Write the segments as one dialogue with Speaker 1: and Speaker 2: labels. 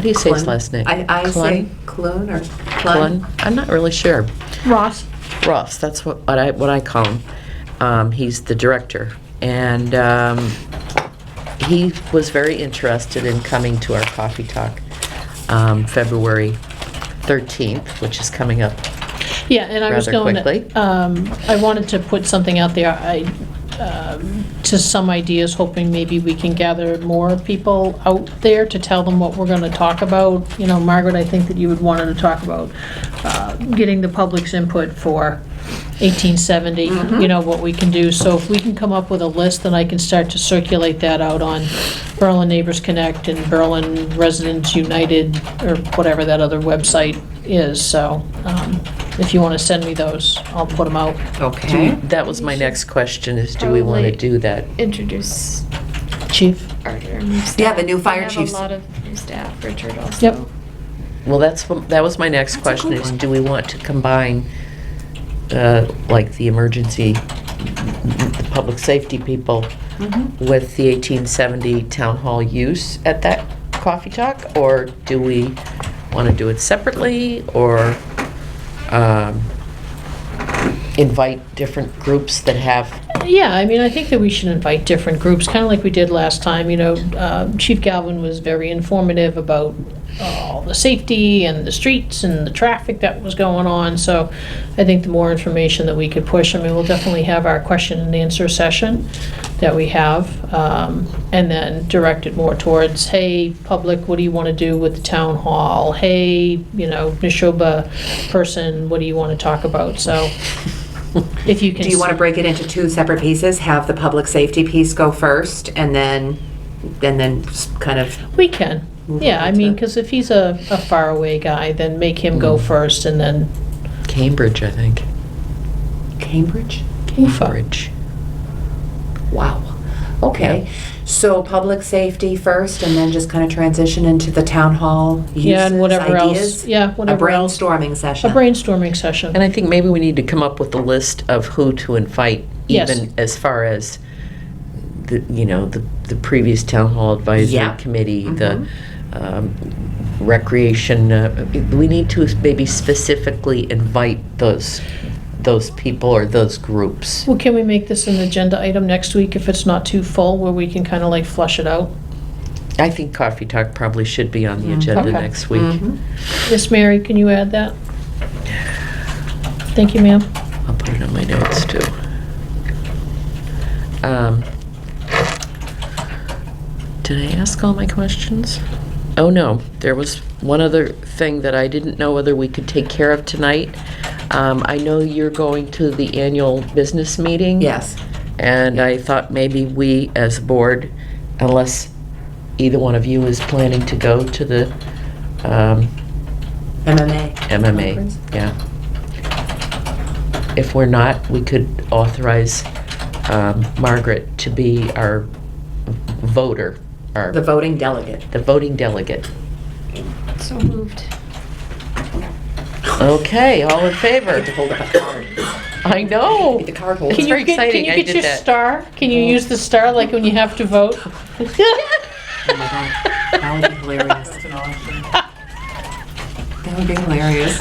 Speaker 1: How do you say his
Speaker 2: Clun.
Speaker 1: last name?
Speaker 2: I, I say Clun or
Speaker 1: Clun?
Speaker 2: Clun.
Speaker 1: I'm not really sure.
Speaker 3: Ross,
Speaker 1: Ross, that's what, what I, what I call him. Um, he's the director. And, um, he was very interested in coming to our coffee talk, um, February 13th, which is coming up.
Speaker 3: yeah, and I was
Speaker 1: Rather
Speaker 3: going
Speaker 1: quickly.
Speaker 3: to, um, I wanted to put something out there, I, um, to some ideas, hoping maybe we can gather more people out there to tell them what we're going to talk about. You know, Margaret, I think that you would want to talk about uh, getting the public's input for 1870, you know, what we can do. So if we can come up with a list, then I can start to circulate that out on Berlin Neighbors Connect and Berlin Residents United, or whatever that other website is. So um, if you want to send me those, I'll put them out.
Speaker 2: Okay.
Speaker 1: That was my next question, is do we want to
Speaker 4: Probably-
Speaker 1: do that?
Speaker 4: introduce
Speaker 3: Chief?
Speaker 4: our, our new staff.
Speaker 2: the new fire chiefs.
Speaker 4: We have a lot of new staff, Richard also.
Speaker 3: Yep.
Speaker 1: Well, that's, what- that was my next
Speaker 2: That's a
Speaker 1: question,
Speaker 2: good
Speaker 1: is
Speaker 2: one.
Speaker 1: do we want to combine, uh, like, the emergency, the public safety people
Speaker 3: Mm-hmm.
Speaker 2: Mhm.
Speaker 1: with the 1870 town hall use at that coffee talk? Or do we want to do it separately, or um, invite different groups that have,
Speaker 3: Yeah, I mean, I think that we should invite different groups, kind of like we did last time, you know. uh, Chief Galvin was very informative about uh, all the safety and the streets and the traffic that was going on, so I think the more information that we could push, I mean, we'll definitely have our question and answer session that we have, um, and then direct it more towards, hey, public, what do you want to do with the town hall? Hey, you know, Nishoba person, what do you want to talk about? So if you can.
Speaker 2: Do you want to
Speaker 3: s-
Speaker 2: break it into two separate pieces? Have the public safety piece go first and then, and then s- kind of,
Speaker 3: We can,
Speaker 2: Move
Speaker 3: yeah,
Speaker 2: on
Speaker 3: I
Speaker 2: to-
Speaker 3: mean, because if he's a, a faraway guy, then make him go
Speaker 2: Mm-hmm.
Speaker 3: first and then
Speaker 1: Cambridge, I think,
Speaker 2: Cambridge?
Speaker 3: Ufa.
Speaker 1: Cambridge.
Speaker 2: Wow. Okay. So public safety first and then just kind of transition into the town hall
Speaker 3: Yeah,
Speaker 2: uses,
Speaker 3: and whatever
Speaker 2: ideas?
Speaker 3: else, yeah,
Speaker 2: A
Speaker 3: whatever else.
Speaker 2: brainstorming
Speaker 3: A
Speaker 2: session.
Speaker 3: brainstorming
Speaker 1: And
Speaker 3: session,
Speaker 1: I think maybe we need to come up with a list of who to invite,
Speaker 3: Yes.
Speaker 1: even as far as the, you know, the, the previous town hall advisory
Speaker 2: Yeah.
Speaker 1: committee, the
Speaker 3: Mm-hmm.
Speaker 1: um, recreation, uh, we need to maybe specifically invite those, those people or those groups.
Speaker 3: well, can we make this an agenda item next week if it's not too full, where we can kind of like flush it out?
Speaker 1: I think Coffee Talk probably should be on the
Speaker 2: Mm.
Speaker 1: agenda
Speaker 3: Mm-hmm. Okay. Mm-hmm.
Speaker 1: next week.
Speaker 2: Mhm.
Speaker 3: Miss Mary, can you add that? Thank you, ma'am.
Speaker 1: I'll put it on my notes too. Um, Did I ask all my questions? Oh, no, there was one other thing that I didn't know whether we could take care of tonight. Um, I know you're going to the annual business meeting.
Speaker 2: Yes.
Speaker 1: And I thought maybe we, as a board, unless either one of you is planning to go to the um,
Speaker 2: MMA. Conference.
Speaker 1: MMA, yeah. If we're not, we could authorize um, Margaret to be our voter, our,
Speaker 2: The voting delegate.
Speaker 1: the voting delegate.
Speaker 4: So moved.
Speaker 1: Okay, all in
Speaker 2: I get to
Speaker 1: favor?
Speaker 2: hold up a card.
Speaker 1: I know.
Speaker 2: Get the card holder.
Speaker 1: It's
Speaker 3: Can
Speaker 1: very
Speaker 3: you get, can
Speaker 1: exciting,
Speaker 3: you
Speaker 1: I
Speaker 3: get
Speaker 1: did
Speaker 3: your
Speaker 1: that.
Speaker 3: star? Can you use the star like when you have to vote?
Speaker 2: Oh my god, that would be hilarious. That would be hilarious.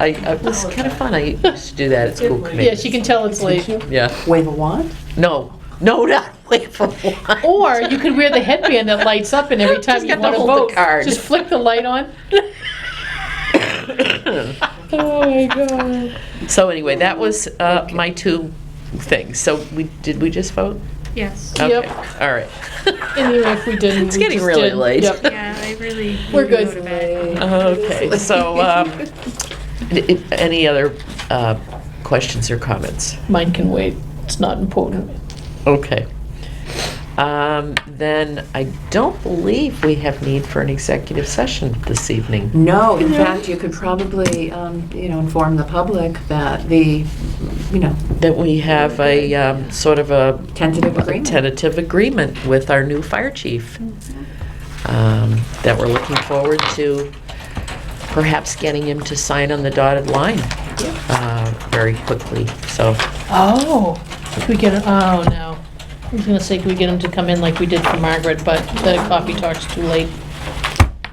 Speaker 1: I, it was
Speaker 2: Oh,
Speaker 1: kind of fun, I used to do that at school
Speaker 3: Yes,
Speaker 1: committee.
Speaker 3: you can tell it's late.
Speaker 1: Yeah,
Speaker 2: Wave a wand?
Speaker 1: no, no, not wait for one.
Speaker 3: Or you could wear the headband that lights up and every time
Speaker 1: Just
Speaker 3: you
Speaker 1: got to
Speaker 3: want to
Speaker 1: hold the
Speaker 3: vote,
Speaker 1: card.
Speaker 3: just flick the light on. Oh my God.
Speaker 1: So anyway, that was uh, my two things. So we, did we just vote?
Speaker 4: Yes.
Speaker 3: Yep.
Speaker 1: Okay, All right.
Speaker 3: Anyway, if we didn't.
Speaker 1: It's
Speaker 3: we
Speaker 1: getting
Speaker 3: just
Speaker 1: really
Speaker 3: didn't.
Speaker 1: late.
Speaker 3: Yep.
Speaker 4: Yeah, I really.
Speaker 3: We're
Speaker 4: need to
Speaker 3: good.
Speaker 4: go to bed.
Speaker 1: Okay, so, um, i- i- any other uh, questions or comments?
Speaker 3: Mine can wait. It's not important.
Speaker 1: Okay. Um, Then I don't believe we have need for an executive session this evening.
Speaker 2: No, in fact, you could probably, um, you know, inform the public that the, you know,
Speaker 1: That we have a um, sort of a
Speaker 2: tentative agreement.
Speaker 1: tentative agreement with our new fire chief.
Speaker 3: Uh-huh.
Speaker 1: um, That we're looking forward to perhaps getting him to sign on the dotted line uh, very quickly, so.
Speaker 3: Oh. Could we get, oh no. I was gonna say, could we get him to come in like we did for Margaret, but the coffee talk's too late.